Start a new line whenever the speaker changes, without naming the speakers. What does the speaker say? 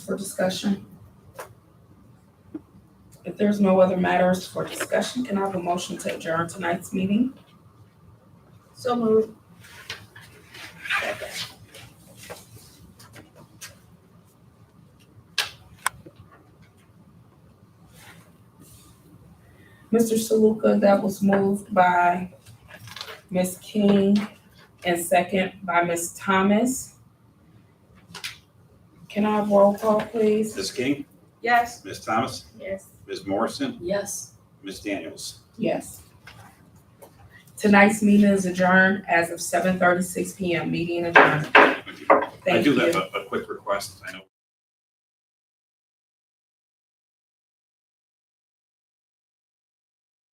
for discussion? If there's no other matters for discussion, can I have a motion to adjourn tonight's meeting?
So moved.
Mr. Saluka, that was moved by Ms. King and second by Ms. Thomas. Can I have roll call, please?
Ms. King,
Yes.
Ms. Thomas,
Yes.
Ms. Morrison,
Yes.
Ms. Daniels.
Yes. Tonight's meeting is adjourned as of seven thirty-six PM. Meeting adjourned.
I
Thank
do
you.
have a, a quick request. I know